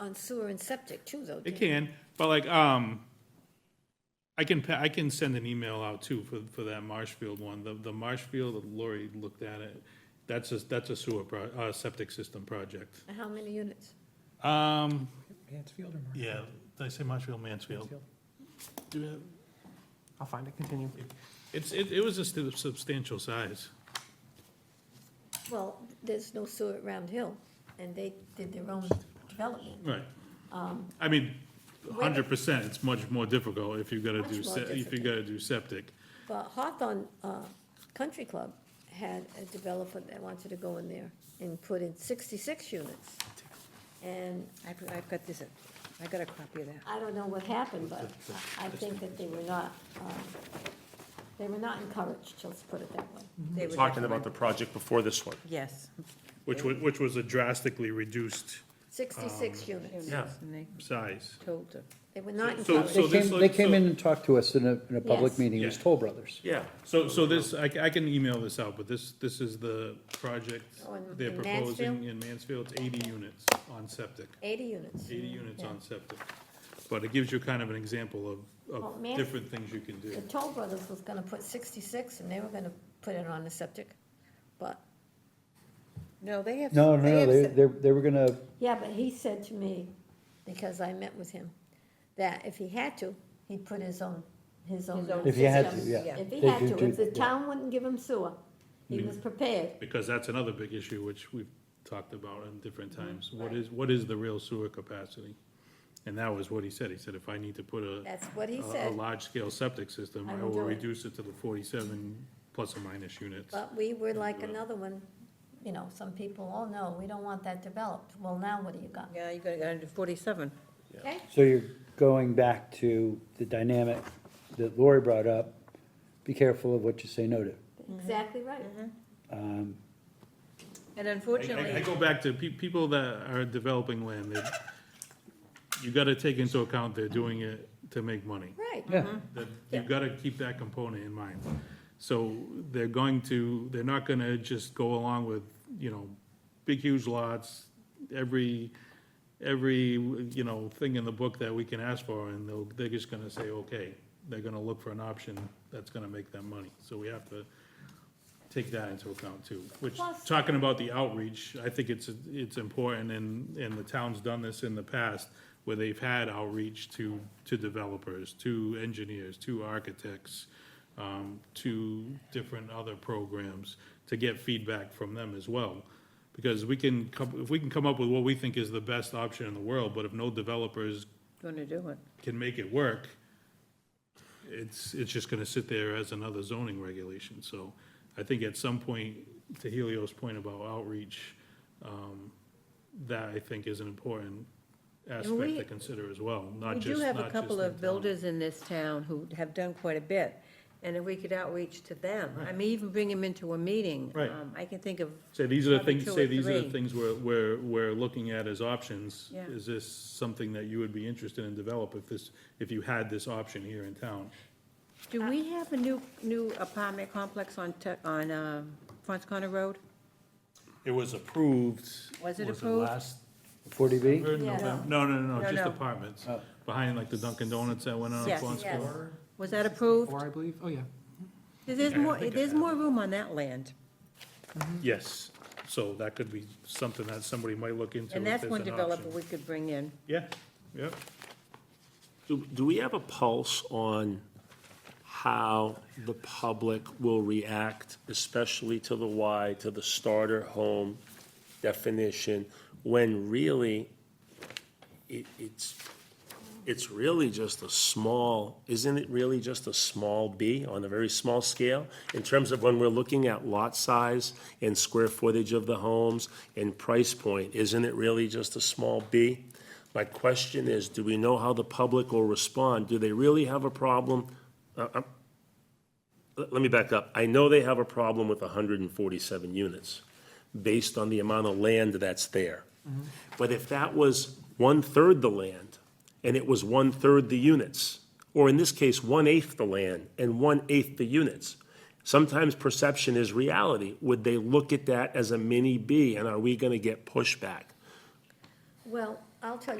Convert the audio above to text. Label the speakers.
Speaker 1: on sewer and septic too, though.
Speaker 2: It
Speaker 1: Dan.
Speaker 2: can, but like, um, I can, pa- I can send an email out too for, for that Marshfield one. The, the Marshfield, Lori looked at it. That's a, that's a sewer pro, uh, septic system project.
Speaker 1: And How many units?
Speaker 2: Um,
Speaker 3: Mansfield or Mark?
Speaker 2: yeah, did I say Marshfield, Mansfield? Do you have-
Speaker 3: I'll find it, continue.
Speaker 2: It's, it, it was a stu- substantial size.
Speaker 1: Well, there's no sewer at Round Hill, and they did their own development.
Speaker 2: Right.
Speaker 1: Um,
Speaker 2: I mean, hundred percent, it's much more difficult if you gotta do,
Speaker 1: Much more
Speaker 2: se- if you
Speaker 1: difficult.
Speaker 2: gotta do septic.
Speaker 1: But Hawthorne, uh, Country Club had a developer that wanted to go in there and put in sixty-six units. And
Speaker 4: I've, I've got this, I got a copy of that.
Speaker 1: I don't know what happened, but I I think that they were not, um, they were not encouraged, let's put it that way.
Speaker 2: Um, Mm-hmm.
Speaker 4: They were
Speaker 5: Talking about the
Speaker 4: different.
Speaker 5: project before this one.
Speaker 4: Yes.
Speaker 2: Which was, which was a drastically reduced
Speaker 1: Sixty-six units,
Speaker 5: Yeah.
Speaker 4: And they
Speaker 2: size.
Speaker 4: told her.
Speaker 1: they were not
Speaker 2: So-
Speaker 1: encouraged.
Speaker 2: so
Speaker 6: They
Speaker 2: this,
Speaker 6: came, they
Speaker 2: like,
Speaker 6: came
Speaker 2: so-
Speaker 6: in and talked to us in a, in a public
Speaker 1: Yes.
Speaker 6: meeting, it was
Speaker 2: Yeah.
Speaker 6: Toll Brothers.
Speaker 5: Yeah.
Speaker 2: So, so this, I, ca- I can email this out, but this, this is the project
Speaker 1: Oh, in-
Speaker 2: they're
Speaker 1: in
Speaker 2: proposing
Speaker 1: Mansfield?
Speaker 2: in Mansfield, it's eighty units on septic,
Speaker 1: Eighty units.
Speaker 2: eighty units
Speaker 1: Mm, Yeah.
Speaker 2: on septic. But it gives you kind of an example of,
Speaker 1: Well,
Speaker 2: of
Speaker 1: Man-
Speaker 2: different things you can do.
Speaker 1: The Toll Brothers was gonna put sixty-six, and they were gonna put it on the septic, but,
Speaker 4: No, they have.
Speaker 6: No, no, no,
Speaker 4: have
Speaker 6: they,
Speaker 4: said-
Speaker 6: they, they were gonna,
Speaker 1: yeah, but he said to me, because I met with him, that if he had to, he'd put his own, his own.
Speaker 4: own
Speaker 6: if you had to,
Speaker 1: system.
Speaker 6: yeah.
Speaker 1: If he
Speaker 6: They
Speaker 1: had
Speaker 6: do-
Speaker 1: to,
Speaker 6: do-
Speaker 1: if the
Speaker 6: yeah.
Speaker 1: town wouldn't give him sewer, he was prepared,
Speaker 2: Because that's another big issue which we've talked about in different
Speaker 1: Mm-hmm,
Speaker 2: times. What is, what is the real sewer capacity? And that was what he said. He said, if I need to put a,
Speaker 1: that's what he
Speaker 2: a, a
Speaker 1: said.
Speaker 2: large-scale septic system,
Speaker 1: I
Speaker 2: I
Speaker 1: will
Speaker 2: will
Speaker 1: do it.
Speaker 2: reduce it to the forty-seven plus or minus units.
Speaker 1: But we were like another one, you know, some people, oh no, we don't want that developed. Well, now what do you got?
Speaker 4: Yeah, you got to do forty-seven.
Speaker 1: Okay?
Speaker 6: so you're going back to the dynamic that Lori brought up, be careful of what you say no to.
Speaker 1: Exactly right.
Speaker 6: Um,
Speaker 4: And
Speaker 2: I, I
Speaker 4: unfortunately,
Speaker 2: go back to pe- people that are developing land, they, you gotta take into account they're doing it to make money.
Speaker 1: Right.
Speaker 6: yeah,
Speaker 2: That,
Speaker 1: Yeah.
Speaker 2: you've gotta keep that component in mind. So they're going to, they're not gonna just go along with, you know, big huge lots, every, every, you know, thing in the book that we can ask for, and they'll, they're just gonna say, okay. They're gonna look for an option that's gonna make them money, so we have to take that into account too. Which,
Speaker 1: Plus-
Speaker 2: talking about the outreach, I think it's, it's important, and, and the town's done this in the past, where they've had outreach to, to developers, to engineers, to architects, um, to different other programs, to get feedback from them as well. Because we can come, if we can come up with what we think is the best option in the world, but if no developers
Speaker 4: going to do it.
Speaker 2: can make it work, it's, it's just gonna sit there as another zoning regulation, so I think at some point, to Helio's point about outreach, um, that I think is an important aspect
Speaker 4: we-
Speaker 2: to consider as well,
Speaker 4: We
Speaker 2: not
Speaker 4: do
Speaker 2: just,
Speaker 4: have
Speaker 2: not
Speaker 4: a
Speaker 2: just in
Speaker 4: couple
Speaker 2: town.
Speaker 4: of builders in this town who have done quite a bit, and if we could outreach to them, I mean, even bring them into a meeting.
Speaker 2: Right.
Speaker 4: um, I can think of,
Speaker 2: Say, these are the
Speaker 4: probably
Speaker 2: things,
Speaker 4: two
Speaker 2: say,
Speaker 4: or
Speaker 2: these are the
Speaker 4: three.
Speaker 2: things we're, we're, we're looking at as options.
Speaker 4: Yeah.
Speaker 2: Is this something that you would be interested in develop if this, if you had this option here in town?
Speaker 4: do we have a new, new apartment complex on, Te- on um, Fons Connor Road?
Speaker 2: It was approved.
Speaker 4: Was it approved?
Speaker 2: last
Speaker 6: forty B,
Speaker 2: November?
Speaker 1: Yeah.
Speaker 2: November? No, no, no,
Speaker 4: No,
Speaker 2: no, just
Speaker 4: no.
Speaker 2: apartments,
Speaker 6: Oh.
Speaker 2: behind like the Dunkin' Donuts that went on
Speaker 4: Yes.
Speaker 2: Fons
Speaker 1: Yes.
Speaker 2: Court.
Speaker 4: Was that approved?
Speaker 3: Four, I believe, oh, yeah.
Speaker 4: There's
Speaker 2: Yeah, I
Speaker 4: more,
Speaker 2: think I
Speaker 4: there's
Speaker 2: have
Speaker 4: more room on that land,
Speaker 2: Yes, so that could be something that somebody might look into.
Speaker 4: and
Speaker 2: if
Speaker 4: that's
Speaker 2: there's
Speaker 4: one
Speaker 2: an
Speaker 4: developer
Speaker 2: option.
Speaker 4: we could bring in.
Speaker 2: Yeah, yeah.
Speaker 5: Do, do we have a pulse on how the public will react, especially to the Y, to the starter home definition, when really it, it's, it's really just a small, isn't it really just a small B on a very small scale? In terms of when we're looking at lot size and square footage of the homes and price point, isn't it really just a small B? My question is, do we know how the public will respond? Do they really have a problem? Uh, I'm- Let let me back up. I know they have a problem with 147 units based on the amount of land that's there. But if that was one-third the land, and it was one-third the units, or in this case, one-eighth the land and one-eighth the units, sometimes perception is reality. Would they look at that as a mini B, and are we gonna get pushback?
Speaker 1: Well, I'll tell you.